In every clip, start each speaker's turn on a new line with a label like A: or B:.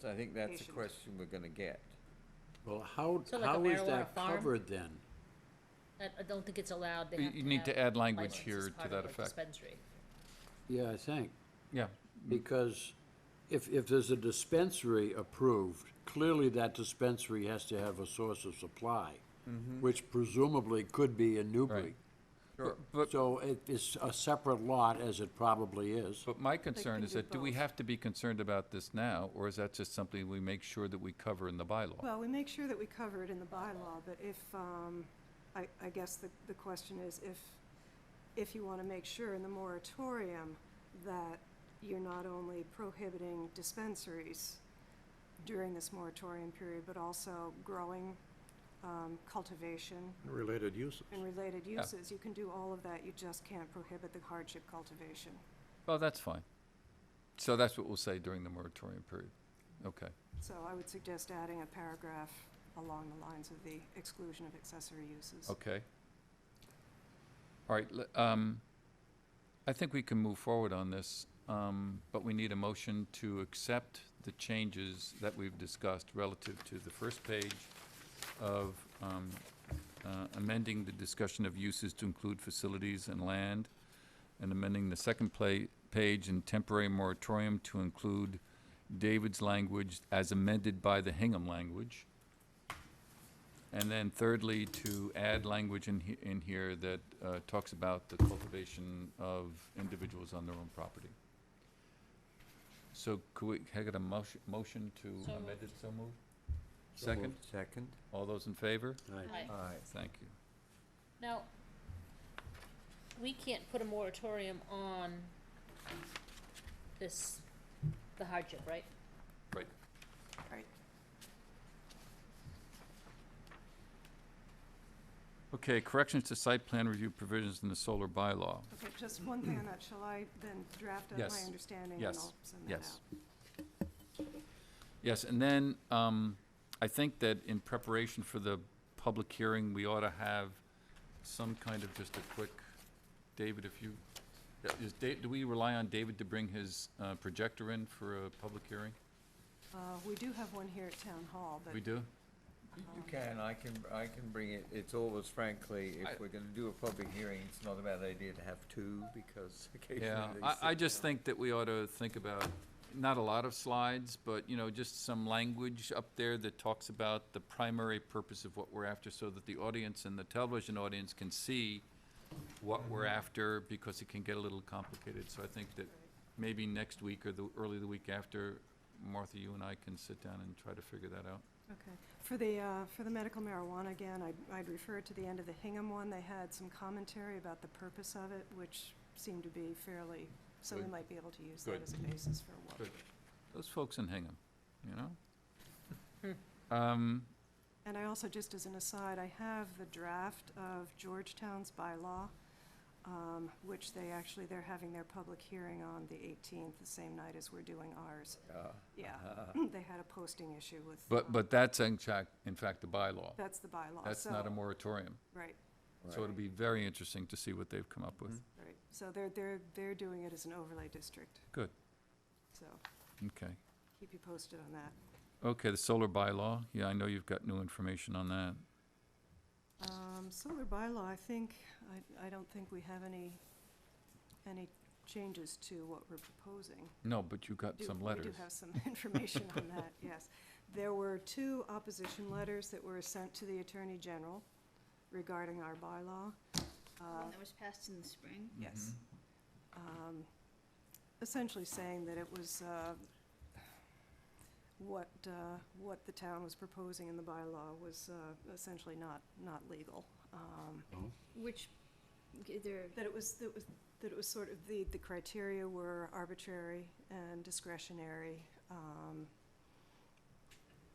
A: So I think that's a
B: Patient.
A: question we're gonna get.
C: Well, how,
D: So like a
C: how is
D: marijuana
C: that
D: farm?
C: covered then?
D: I, I don't think it's allowed, they
E: You-
D: have to
E: you need to
D: have
E: add language
D: license
E: here
D: as
E: to
D: part of
E: that
D: a
E: effect.
D: Dispensary.
C: Yeah, I think,
E: Yeah,
C: Hmm. because if, if there's a dispensary approved, clearly that dispensary has to have a source of supply, which presumably could be in Newbury.
E: Right. but,
C: So it is a separate lot, as it probably is.
E: but my concern
B: can
E: is
B: do
E: that, do we
B: both.
E: have to be concerned about this now, or is that just something we make sure that we cover in the bylaw?
B: Well, we make sure that we cover it in the bylaw, but if, um, I, I guess the, the question is if, if you want to make sure in the moratorium that you're not only prohibiting dispensaries during this moratorium period, but also growing, um, cultivation
F: Related uses.
B: and related uses. You can do all of that, you just can't prohibit the hardship cultivation.
E: Well, that's fine. So that's what we'll say during the moratorium period. Okay.
B: So I would suggest adding a paragraph along the lines of the exclusion of accessory uses.
E: Okay. All right, le- um, I think we can move forward on this, um, but we need a motion to accept the changes that we've discussed relative to the first page of, um, uh, amending the discussion of uses to include facilities and land, and amending the second pla- page in temporary moratorium to include David's language as amended by the Hingham language. And then thirdly, to add language in, he- in here that uh, talks about the cultivation of individuals on their own property. So could we, can I get a motion, motion to
D: So
E: amend
D: moved.
E: it, so moved? Second?
A: Second?
E: All those in favor?
C: Aye.
D: Aye.
A: Aye.
E: Thank you.
D: Now, we can't put a moratorium on this, the hardship, right?
E: Right.
B: Right.
E: Okay, corrections to site plan review provisions in the solar bylaw.
B: Okay, just one thing on that, shall I then draft up my
E: Yes.
B: understanding and
E: Yes.
B: I'll send that out?
E: Yes. Yes, and then, um, I think that in preparation for the public hearing, we ought to have some kind of just a quick, David, if you, is Da- do we rely on David to bring his, uh, projector in for a public hearing?
B: Uh, we do have one here at Town Hall, but.
E: We do?
A: You you can, I can, I can bring it, it's always frankly,
E: I-
A: if we're gonna do a public hearing, it's not a bad idea to have two, because occasionally
E: Yeah,
A: they
E: I, I
A: sit
E: just
A: down.
E: think that we ought to think about, not a lot of slides, but, you know, just some language up there that talks about the primary purpose of what we're after, so that the audience and the television audience can see what we're after, because it can get a little complicated, so I think that maybe next week or the, early the week after, Martha, you and I can sit down and try to figure that out.
B: Okay. For the, uh, for the medical marijuana again, I'd, I'd refer to the end of the Hingham one. They had some commentary about the purpose of it, which seemed to be fairly, so we
E: Good.
B: might be able to use
E: Good.
B: that as a basis for what.
E: Good. Those folks in Hingham, you know? Um,
B: And I also, just as an aside, I have the draft of Georgetown's bylaw, um, which they actually, they're having their public hearing on the 18th, the same night as we're doing ours.
A: uh,
B: Yeah, they had a posting issue with. um,
E: Uh, but, but that's in fact, in fact, the bylaw.
B: That's the bylaw.
E: That's not a
B: so-
E: moratorium.
B: Right,
E: So it'll be very interesting to see what they've come up with.
B: right. So they're, they're, they're doing it as an overlay district,
E: Good,
B: so
E: okay.
B: keep you posted on that.
E: Okay, the solar bylaw, yeah, I know you've got new information on that.
B: Um, solar bylaw, I think, I, I don't think we have any, any changes to what we're proposing.
E: No, but you got
B: do-
E: some
B: We
E: letters.
B: do have some information on that, yes. There were two opposition letters that were sent to the Attorney General regarding our bylaw. Uh,
G: One that was passed in the spring.
B: Yes. Um, Essentially saying that it was uh, what, uh, what the town was proposing in the bylaw was uh, essentially not, not legal. Um,
G: Which, g- there,
B: That it was, that was, that it was sort of, the, the criteria were arbitrary and discretionary. um,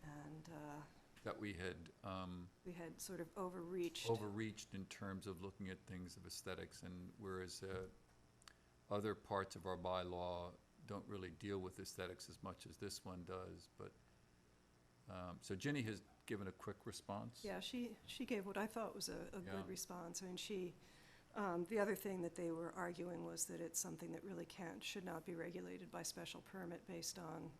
B: And uh,
E: That we had um,
B: we had sort of overreached.
E: overreached in terms of looking at things of aesthetics, and whereas uh, other parts of our bylaw don't really deal with aesthetics as much as this one does, but, um, so Ginny has given a quick response.
B: Yeah, she, she gave what I thought was a, a
E: Yeah.
B: good response, I mean, she, um, the other thing that they were arguing was that it's something that really can't, should not be regulated by special permit based on